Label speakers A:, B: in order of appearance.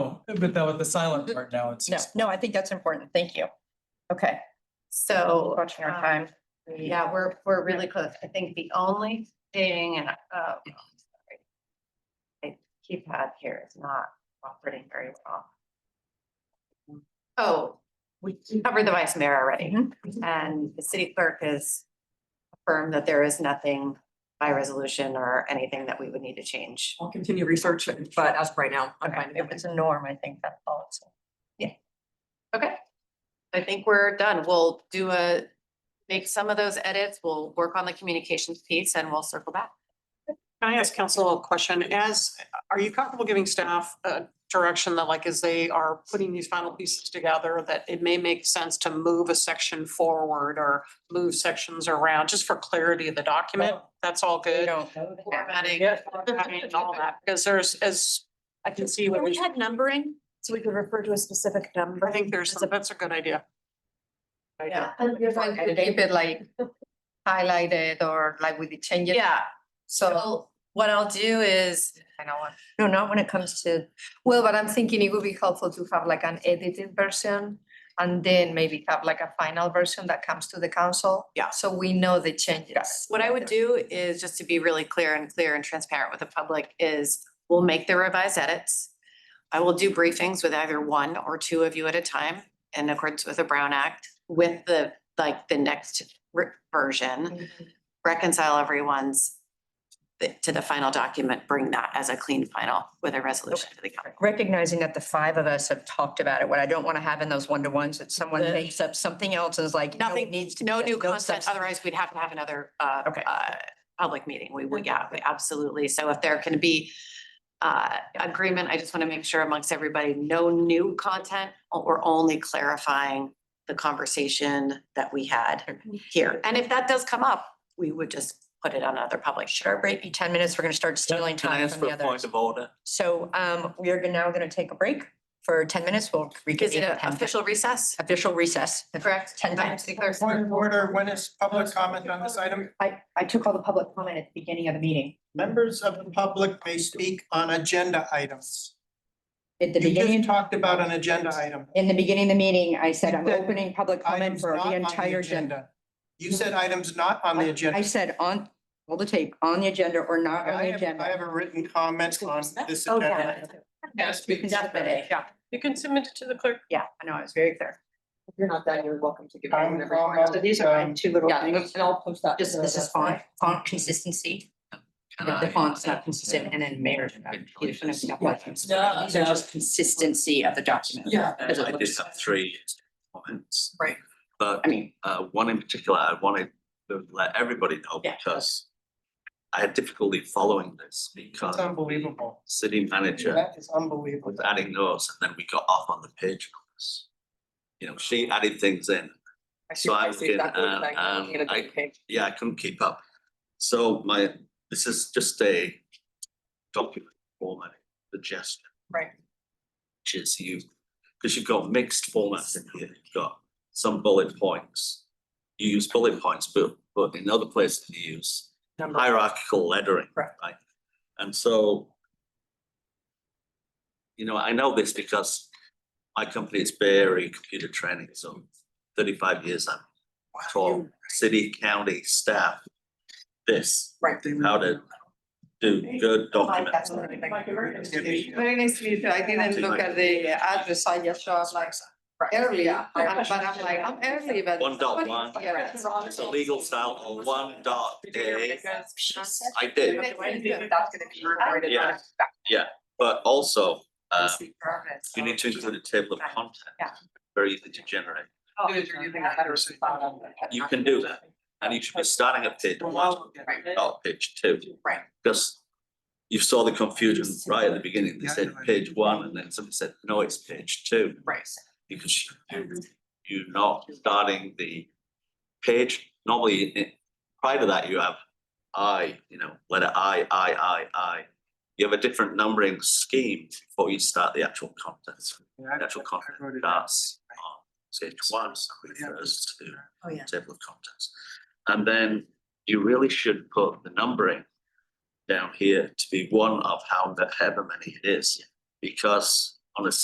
A: But that was the silent part now, it's.
B: No, no, I think that's important. Thank you. Okay,
C: So.
B: watching our
C: um,
B: time.
C: Yeah, we're, we're really close. I think the only thing, and, uh, sorry. My keypad here is not operating very well.
D: Mm.
C: Oh, we covered the vice mayor already,
B: Mhm.
D: Mm-hmm.
C: and the city clerk has affirmed that there is nothing by resolution or anything that we would need to change.
E: I'll continue research, but as of right now, I'm
B: Okay,
E: fine.
B: If it's a norm, I think that's all. it's-
C: Okay. I think we're done. We'll do a, make some of those edits. We'll work on the communications piece and we'll circle back.
D: Can I ask council a question? As, are you comfortable giving staff a direction that like as they are putting these final pieces together, that it may make sense to move a section forward or move sections around, just for clarity of the document? That's all
B: We
D: good.
B: don't know that.
C: Formatting.
D: Yeah, I mean, all that, because there's, as I can see, what we-
C: had numbering, so we could refer to a specific number.
D: I think there's, that's a good idea. Idea.
B: Yeah. Keep it like highlighted or like with the changes.
C: Yeah,
B: So,
C: so what I'll do is,
B: I don't want, no, not when it comes to, well, but I'm thinking it would be helpful to have like an edited version. And then maybe have like a final version that comes to the council.
D: Yeah.
B: So we know the changes.
C: what I would do is just to be really clear and clear and transparent with the public is we'll make the revised edits. I will do briefings with either one or two of you at a time in accordance with the Brown Act with the, like, the next re- version. Reconcile everyone's to the final document, bring that as a clean final with a resolution to the council.
B: recognizing that the five of us have talked about it, what I don't want to have in those one-to-ones, that someone
D: The-
B: takes up something else and is like, no, it
C: Nothing-
B: needs to. be
C: No
B: this,
C: new content,
B: substance.
C: otherwise we'd have to have another uh
B: Okay.
C: uh public meeting. We would, yeah, we- absolutely. So if there can be uh agreement, I just want to make sure amongst everybody, no new content. o- We're only clarifying the conversation that we had here. And if that does come up, we would just put it on another public
B: Our
C: share.
B: break be ten minutes, we're gonna start stealing
F: Can I
B: time
F: ask
B: from
F: for
B: the
F: a point
B: others.
F: of order?
B: So, um, we are gonna- now gonna take a break for ten minutes, we'll
C: Is
B: reconvene.
C: it
B: at
C: an
B: 10.
C: official recess?
B: Official recess.
C: Correct?
B: Ten times.
G: Point of order, when is public comment on this item?
B: I, I took all the public comment at the beginning of the meeting.
G: Members of the public may speak on agenda items.
B: At the
G: You
B: beginning,
G: just talked about an agenda item.
B: in the beginning of the meeting, I said,
G: You
B: I'm
G: said
B: opening public comment
G: Items
B: for
G: not
B: the
G: on
B: entire agenda.
G: You said items not on the
B: I- I
G: agenda.
B: said on, all the tape, on the agenda or not on
G: I
B: the
G: have, I
B: agenda.
G: have a written comment on this
C: Oh,
G: agenda.
C: yeah.
G: item.
B: Definitely, yeah,
D: You can submit it to the clerk.
B: yeah, I know, it's very clear.
E: If you're not done, you're welcome to give. me
G: I'm-
E: whatever.
G: I'm-
E: So these are my two little
B: Yeah,
E: things, and I'll post that.
B: Just, this is font, font consistency. If the font's not consistent and then mayor. These are just consistency of the document.
E: Yeah.
B: Because it
F: I did
B: looks-
F: have three comments.
E: Right.
F: But
B: I mean,
F: uh one in particular, I wanted to let everybody know
B: Yeah.
F: because I had difficulty following this because
G: It's unbelievable.
F: city manager
G: That is unbelievable.
F: was adding those and then we got off on the page. on this. You know, she added things in.
E: see-
F: So I
E: see
F: can,
E: exactly what
F: uh,
E: you're saying.
F: um,
E: Get a
F: I-
E: good page.
F: Yeah, I couldn't keep up. So my, this is just a document format suggestion.
E: Right.
F: Which is you, because you've got mixed formats in here, you've got some bullet points. You use bullet points, but but in other places you use hierarchical lettering,
E: Correct.
F: right? And so. You know, I know this because my company is Bay Area Computer Training, so thirty-five years I've taught city, county staff this,
E: Right.
F: how to do good documents.
G: It's
H: Very nice to meet you. I didn't
F: Actually,
H: look
F: like-
H: at the address. I just showed up like early,
E: Yeah.
H: but I'm like, I'm early, but.
F: One dot
H: somebody's
F: one.
H: here.
F: It's a legal style or one dot A. I did, Yeah. but also, um, you need to include a table of contents.
H: Yeah.
F: Very easy to generate, Oh, You
E: You
F: can do that. and you should be starting at page Oh. one, not page two.
H: Right.
F: Because you saw the confusion right at the beginning, they said page one, and then somebody said, no, it's page two.
E: Right.
F: because you- you're not starting the page. Normally, i- prior to that, you have I, you know, letter I, I, I, I. You have a different numbering scheme before you start the actual content. The actual Uh, content starts on page one, refers to the table of contents. And then you really should put the numbering down here to be one of how, the- however many it is. Because on a